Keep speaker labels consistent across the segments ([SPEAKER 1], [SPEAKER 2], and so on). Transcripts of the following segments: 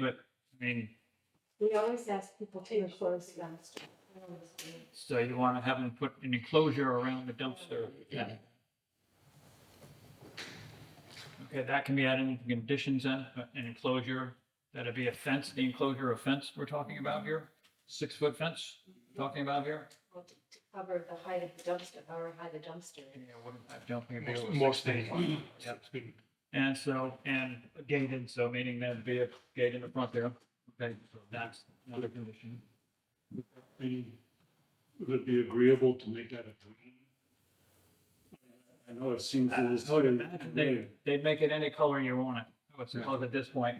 [SPEAKER 1] but, I mean,
[SPEAKER 2] We always ask people to enclose the dumpster.
[SPEAKER 1] so you want to have them put an enclosure around the dumpster. then. Okay, that can be added into conditions then, but an enclosure, that'd be a fence, the enclosure of fence we're talking about here? Six-foot fence, we're talking about here?
[SPEAKER 2] Well, To to cover the height of the dumpster, however high the dumpster
[SPEAKER 1] Yeah,
[SPEAKER 2] is.
[SPEAKER 1] wouldn't, I don't think it'd be.
[SPEAKER 3] Most-
[SPEAKER 1] over
[SPEAKER 3] Most
[SPEAKER 1] six
[SPEAKER 3] things.
[SPEAKER 1] feet. And so, and gated, so meaning there'd be a gate in the front there. Okay, so that's another condition.
[SPEAKER 3] I mean, Would it be agreeable to make that a green? I know it seems a
[SPEAKER 1] I
[SPEAKER 3] little.
[SPEAKER 1] would imagine They, they'd make it any color you want it, I would suppose at this point.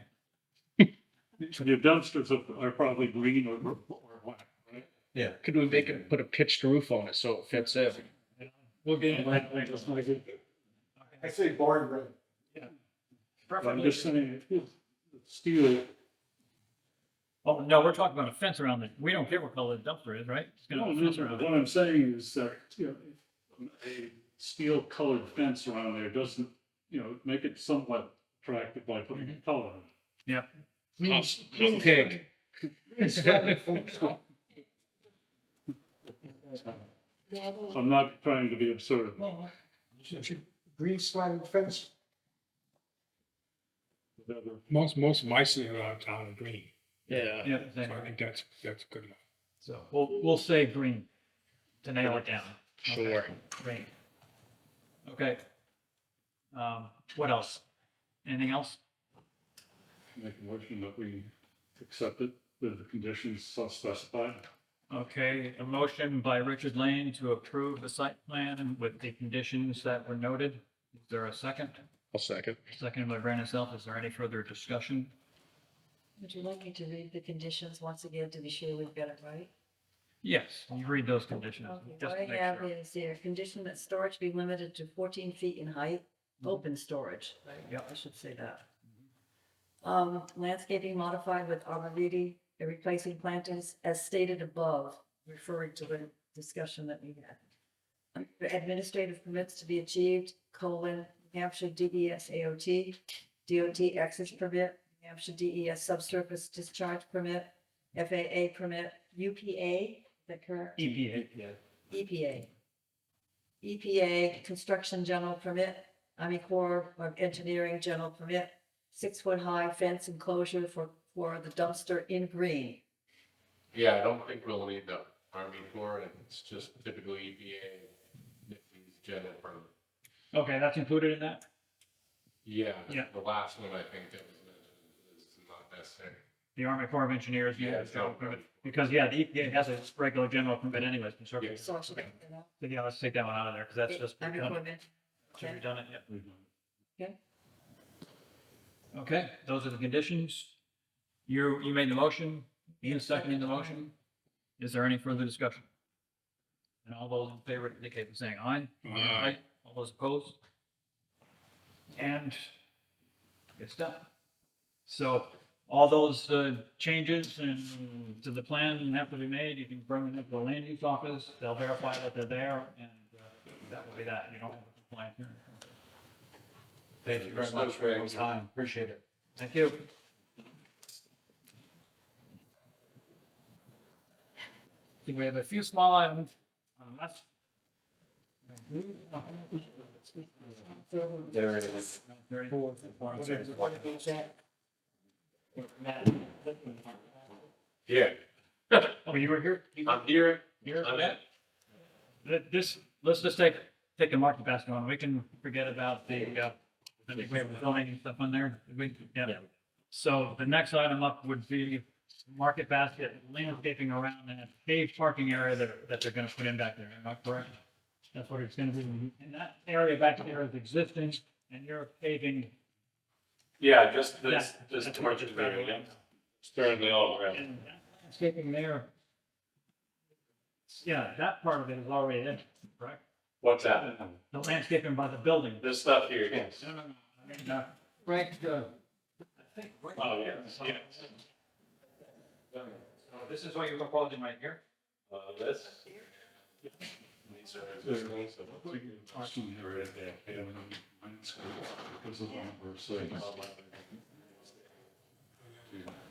[SPEAKER 3] Your dumpsters are- are probably green or, or black, right?
[SPEAKER 4] Yeah. Could we make it, put a pitched roof on it so it fits in?
[SPEAKER 1] We'll get,
[SPEAKER 3] And I think that's not good.
[SPEAKER 5] I say barn red.
[SPEAKER 3] But I'm
[SPEAKER 1] preferably,
[SPEAKER 3] just saying, if steel,
[SPEAKER 1] oh, no, we're talking about a fence around it. We don't care what color the dumpster is, right? It's gonna
[SPEAKER 3] no,
[SPEAKER 1] have a
[SPEAKER 3] no,
[SPEAKER 1] fence around
[SPEAKER 3] no,
[SPEAKER 1] it.
[SPEAKER 3] what I'm saying is that, you know, a steel colored fence around there doesn't, you know, make it somewhat attractive by putting
[SPEAKER 1] Mm-hmm.
[SPEAKER 3] a color on it.
[SPEAKER 4] Pig.
[SPEAKER 2] Yeah, well,
[SPEAKER 3] I'm not trying to be absurd.
[SPEAKER 5] Green sliding fence.
[SPEAKER 3] Whatever.
[SPEAKER 6] Most, most of my cities around town are green,
[SPEAKER 4] Yeah.
[SPEAKER 1] Yeah,
[SPEAKER 6] so
[SPEAKER 1] same.
[SPEAKER 6] I think that's, that's good enough.
[SPEAKER 1] so we'll, we'll say green to nail it down. Okay.
[SPEAKER 4] Sure.
[SPEAKER 1] Great. Okay. Um, what else? Anything else?
[SPEAKER 3] Make a motion that we accept it with the conditions so specified.
[SPEAKER 1] Okay, a motion by Richard Lane to approve the site plan with the conditions that were noted. Is there a second?
[SPEAKER 4] I'll second.
[SPEAKER 1] Second by Brandon Self. Is there any further discussion?
[SPEAKER 2] Would you like me to read the conditions once again to be sure we've got it right?
[SPEAKER 1] Yes, you read those conditions.
[SPEAKER 2] Okay,
[SPEAKER 1] just
[SPEAKER 2] What
[SPEAKER 1] to
[SPEAKER 2] I
[SPEAKER 1] make
[SPEAKER 2] have
[SPEAKER 1] sure.
[SPEAKER 2] is there, condition that storage be limited to fourteen feet in height, open storage. right?
[SPEAKER 1] Mm-hmm. Yep. Mm-hmm.
[SPEAKER 2] I should say that. Um, landscaping modified with arborvitae and replacing plantings as stated above, referring to the discussion that we had. Administrative permits to be achieved, colon, New Hampshire E DES AOT, DOT access permit, New Hampshire DES subsurface discharge permit, FAA permit, UPA, is that correct?
[SPEAKER 1] EPA, yeah.
[SPEAKER 2] EPA. EPA E Construction General Permit, Army Corps of Engineering General Permit, six-foot-high fence enclosure for, for the dumpster in green.
[SPEAKER 7] Yeah, I don't think we'll need the Army Corps, and it's just E typical EPA, NIPSI's general permit.
[SPEAKER 1] Okay, that's included in that?
[SPEAKER 7] Yeah,
[SPEAKER 1] Yeah.
[SPEAKER 7] the last one I think that was mentioned is not necessary.
[SPEAKER 1] The Army Corps of Engineers.
[SPEAKER 7] Yeah,
[SPEAKER 1] yeah,
[SPEAKER 7] it's not-
[SPEAKER 1] so- Because, yeah, the EPA has a regular general permit anyways. and so-
[SPEAKER 7] Yeah.
[SPEAKER 2] So I should take that out.
[SPEAKER 1] So, yeah, let's take that one out of there because that's just
[SPEAKER 2] Army Corps of
[SPEAKER 1] redundant.
[SPEAKER 2] Eng-
[SPEAKER 1] Should be redundant, yeah.
[SPEAKER 3] We don't-
[SPEAKER 1] Okay, those are the conditions. You, you made the motion, Ian seconded the motion. Is there any further discussion? And all those in favor indicate by saying aye.
[SPEAKER 6] Aye.
[SPEAKER 1] All those opposed? And it's done. So all those uh, changes and to the plan have to be made. You can bring them up to the land use office. They'll verify that they're there and uh, that will be that. You don't have a complaint here. Thank you very much for your time. Appreciate it. Thank you. I think we have a few small items on the left.
[SPEAKER 5] There it is.
[SPEAKER 1] Very-
[SPEAKER 7] Yeah,
[SPEAKER 1] Oh, you were here? You
[SPEAKER 7] I'm here,
[SPEAKER 1] Here?
[SPEAKER 7] I'm at,
[SPEAKER 1] Th- This, let's just take, take the market basket one. We can forget about the, uh, I think we have zoning and stuff on there. We, yeah. So the next item up would be market basket landscaping around that paved parking area that, that they're gonna put in back there. Am I correct? That's what it's gonna be. And that area back there is existing and you're paving
[SPEAKER 8] Yeah, just this,
[SPEAKER 1] this- this
[SPEAKER 8] this
[SPEAKER 1] That's what
[SPEAKER 8] torch
[SPEAKER 1] torture it's about.
[SPEAKER 8] barrier,
[SPEAKER 1] area, yeah.
[SPEAKER 8] Certainly all around.
[SPEAKER 1] And that landscaping there. Yeah, that part of it is already in, correct?
[SPEAKER 8] What's that?
[SPEAKER 1] The landscaping by the building.
[SPEAKER 8] This stuff here, yes.
[SPEAKER 1] No, no, no, I mean, uh, Right, uh, I think. right-
[SPEAKER 8] Oh, yes, yes.
[SPEAKER 1] So This is what you're proposing right here?
[SPEAKER 8] Uh, this. These are existing, so
[SPEAKER 3] I think it's awesome here at that, yeah, when I'm in school, because of what we're saying.
[SPEAKER 8] I'll-